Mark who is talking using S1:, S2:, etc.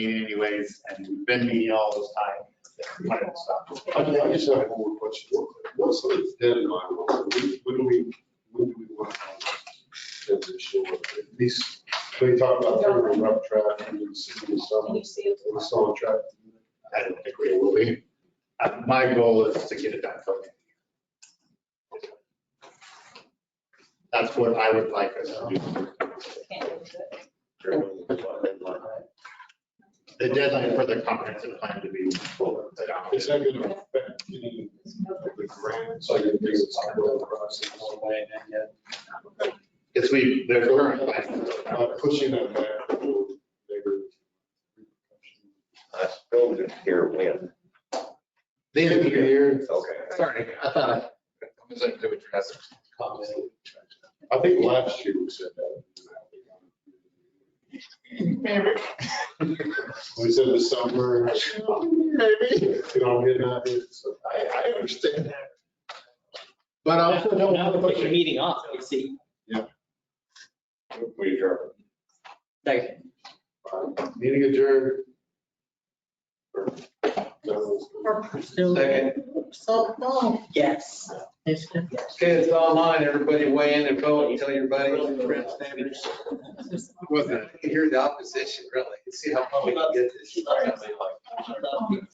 S1: meeting anyways, and we've been meeting all this time. When it stopped.
S2: I mean, I just have one question. What- What's the deadline? When when do we, when do we want to transition? At least, we talk about turning the rough traffic and the city is
S3: Can
S2: some,
S3: you see it?
S2: it's some traffic.
S1: I don't think we will be. Uh, My goal is to get it done for me. That's what I would like us to do.
S3: Can't lose it.
S1: The deadline for the comprehensive plan to be full.
S2: Is that going to affect any of the grants? Like if there's a sidewalk process,
S1: Because we, there's current plans.
S2: uh, pushing that back. will bigger repercussions.
S4: I still didn't hear when.
S1: The end of the year.
S4: Okay.
S1: Sorry, I thought. I- I'm just like, do it drastic.
S2: I think last year we said that. We said the summer. You know, I'm getting out here, so I, I understand that.
S1: But I also don't
S5: Now
S1: want
S5: we
S1: to
S5: put your
S1: push
S5: meeting off, you see.
S4: We adjourn.
S5: Like,
S2: Um, Meeting adjourned. Or, no.
S6: So, no,
S5: yes.
S6: it's good.
S7: Okay, it's online. Everybody weigh in and vote and tell your buddies, your friends, neighbors.
S1: Wasn't it?
S7: Hear the opposition, really. See how far we can get this.